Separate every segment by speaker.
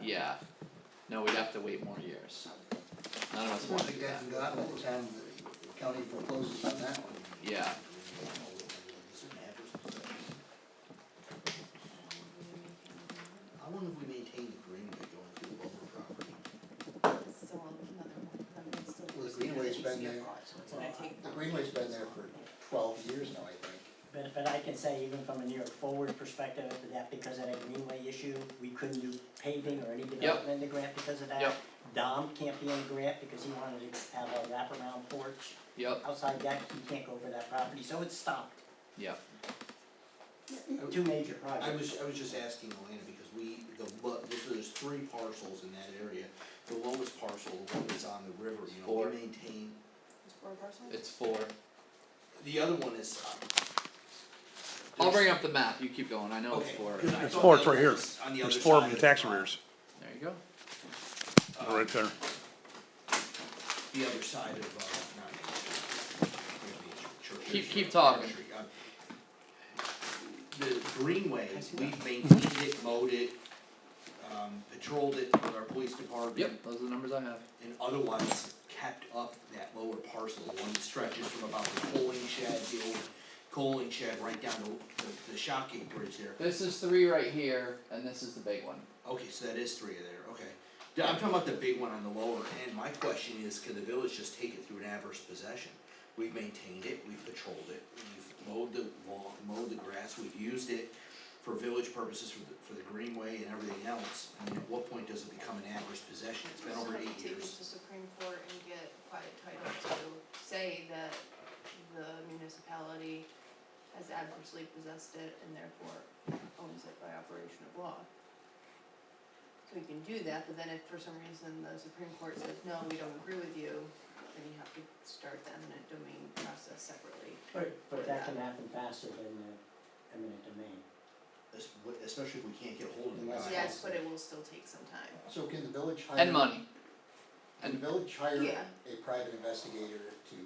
Speaker 1: yeah, no, we'd have to wait more years. None of us
Speaker 2: I
Speaker 1: wanna
Speaker 2: think
Speaker 1: do that,
Speaker 2: that's forgotten by the time the county forecloses on that one.
Speaker 1: yeah,
Speaker 2: How long have we maintained the greenway going through Wilbur property?
Speaker 3: So another one, that one's still.
Speaker 2: Well, the greenway's been there,
Speaker 3: So it's gonna take.
Speaker 2: the greenway's been there for twelve years now, I think.
Speaker 4: But, but I can say even from a New York Forward perspective, that because of that greenway issue, we couldn't do paving or any development in the grant because of that.
Speaker 1: Yep.
Speaker 4: Dom can't be in the grant because he wanted to have a wraparound porch.
Speaker 1: yep,
Speaker 4: Outside that, he can't go over that property, so it's stopped.
Speaker 1: yep,
Speaker 4: Two major
Speaker 5: I
Speaker 4: projects.
Speaker 5: was, I was just asking Elena, because we, the, lo- this there's three parcels in that area, the lowest parcel, the one that's on the river, you know,
Speaker 1: Four.
Speaker 5: we maintain.
Speaker 3: It's four parcels?
Speaker 1: it's four,
Speaker 5: The other one is, uh.
Speaker 1: I'll
Speaker 5: there's-
Speaker 1: bring up the map, you keep going, I know it's
Speaker 5: Okay.
Speaker 1: four,
Speaker 5: because I
Speaker 1: there
Speaker 6: It's
Speaker 5: thought
Speaker 6: four,
Speaker 5: the
Speaker 6: it's right
Speaker 5: other
Speaker 6: here.
Speaker 5: one was on the
Speaker 6: There's
Speaker 5: other
Speaker 6: four
Speaker 5: side
Speaker 6: of the
Speaker 5: of
Speaker 6: tax
Speaker 5: pond,
Speaker 6: arrears,
Speaker 1: you go,
Speaker 5: uh,
Speaker 6: right there.
Speaker 5: The other side of, uh, not Main Street. Church-
Speaker 1: Keep-
Speaker 5: Church-
Speaker 1: keep
Speaker 5: Church
Speaker 1: talking.
Speaker 5: Street, uh, The greenway, we've maintained it, mowed it, um, patrolled it with our police department.
Speaker 1: yep, those are the numbers I have,
Speaker 5: and otherwise kept up that lower parcel, the one that stretches from about the coaling shed, the old coaling shed, right down the, the, the shop gate bridge there.
Speaker 1: this is three right here, and this is the big one.
Speaker 5: Okay, so that is three of there, okay. Yeah, I'm talking about the big one on the lower end, my question is, can the village just take it through an adverse possession? We've maintained it, we've patrolled it, we've mowed the lawn, mowed the grass, we've used it for village purposes for the, for the greenway and everything else, I mean, at what point does it become an adverse possession? It's been over
Speaker 3: So
Speaker 5: eight
Speaker 3: take it
Speaker 5: years.
Speaker 3: to Supreme Court and get quiet title to say that the municipality has adversely possessed it and therefore owns it by operation of law. So we can do that, but then if for some reason the Supreme Court says, no, we don't agree with you, then you have to start the eminent domain process separately.
Speaker 4: But, but that can happen faster than the eminent domain.
Speaker 5: Es- w- Especially if we can't get hold of the guy.
Speaker 3: Yes, but it will still take some time.
Speaker 2: So can the village hire?
Speaker 1: And money,
Speaker 2: Can the village hire
Speaker 3: Yeah.
Speaker 2: a private investigator to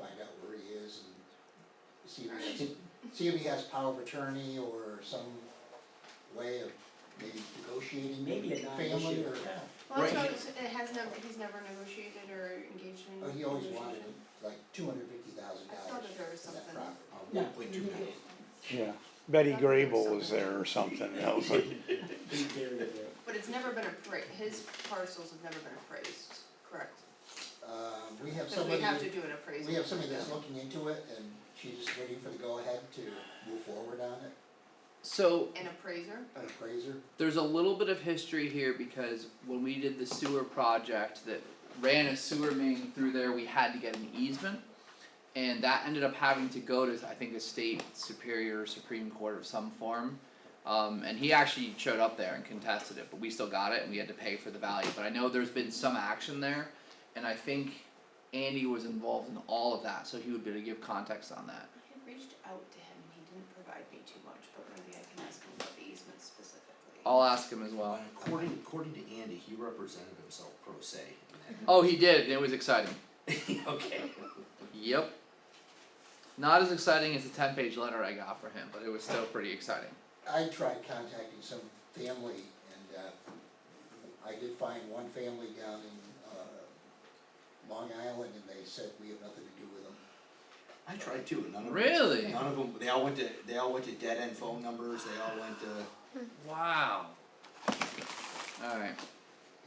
Speaker 2: find out where he is and see if he has, see if he has power of attorney or some way of maybe negotiating
Speaker 4: Maybe
Speaker 2: with
Speaker 4: a
Speaker 2: the
Speaker 4: non-issue,
Speaker 2: family or?
Speaker 4: yeah.
Speaker 3: Well, that's
Speaker 5: Right.
Speaker 3: what it's- it has never, he's never negotiated or engaged in
Speaker 2: Oh, he always wanted
Speaker 3: negotiation.
Speaker 2: like two hundred fifty thousand
Speaker 3: I thought
Speaker 2: dollars
Speaker 3: that there was
Speaker 2: for that
Speaker 3: something.
Speaker 2: property.
Speaker 5: Uh, one point two million.
Speaker 6: Yeah, Betty Grable was there or something, that was like,
Speaker 4: Big dairy there.
Speaker 3: But it's never been appraised, his parcels have never been appraised, correct?
Speaker 2: Um, we have
Speaker 3: Cause
Speaker 2: somebody,
Speaker 3: we have to do an appraisal.
Speaker 2: we have somebody that's
Speaker 3: Yeah.
Speaker 2: looking into it and she's just waiting for the go-ahead to move forward on it,
Speaker 1: so
Speaker 3: An appraiser,
Speaker 2: an appraiser.
Speaker 1: there's a little bit of history here because when we did the sewer project that ran a sewer main through there, we had to get an easement. And that ended up having to go to, I think, the state superior or supreme court of some form. Um, and he actually showed up there and contested it, but we still got it and we had to pay for the value. But I know there's been some action there, and I think Andy was involved in all of that, so he would be able to give context on that.
Speaker 3: I had reached out to him and he didn't provide me too much, but maybe I can ask him about the easement specifically.
Speaker 1: I'll ask him as well.
Speaker 5: According, according to Andy, he represented himself pro se.
Speaker 1: Oh, he did, and it was exciting.
Speaker 5: Okay.
Speaker 1: Yep. Not as exciting as the ten page letter I got for him, but it was still pretty exciting.
Speaker 2: I tried contacting some family and, uh, I did find one family down in, uh, Long Island and they said we have nothing to do with them.
Speaker 5: I tried too, and none of them.
Speaker 1: Really?
Speaker 5: None of them, they all went to, they all went to dead end phone numbers, they all went to,
Speaker 1: Wow. Alright,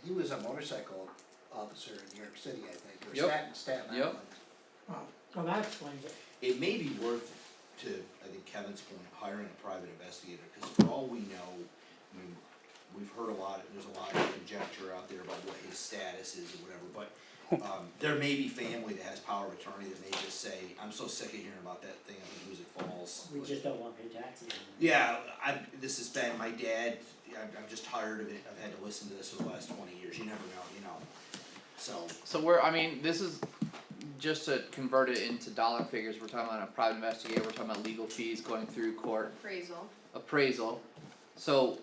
Speaker 2: He was a motorcycle officer in New York City, I think, or
Speaker 1: Yep.
Speaker 2: Staten, Staten
Speaker 1: Yep.
Speaker 2: Island.
Speaker 7: Well, that explains it.
Speaker 5: it may be worth to, I think Kevin's point, hiring a private investigator, cause for all we know, I mean, we've heard a lot, there's a lot of conjecture out there about what his status is or whatever, but um, there may be family that has power of attorney that may just say, I'm so sick of hearing about that thing on Music Falls.
Speaker 4: We
Speaker 5: Like,
Speaker 4: just don't want to pay taxes on it.
Speaker 5: Yeah, I, this has been, my dad, I'm, I'm just tired of it, I've had to listen to this for the last twenty years, you never know, you know. So,
Speaker 1: so we're, I mean, this is, just to convert it into dollar figures, we're talking about a private investigator, we're talking about legal fees going through court,
Speaker 3: Appraisal,
Speaker 1: appraisal. So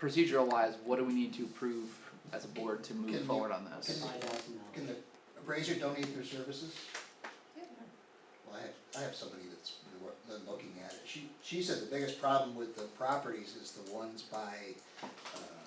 Speaker 1: procedural wise, what do we need to approve as a board to move
Speaker 2: Can you-
Speaker 1: forward on this?
Speaker 2: can-
Speaker 4: Five thousand dollars.
Speaker 2: Can the appraiser donate their services?
Speaker 3: yeah,
Speaker 2: Well, I have, I have somebody that's been wor- been looking at it, she, she said the biggest problem with the properties is the ones by, uh,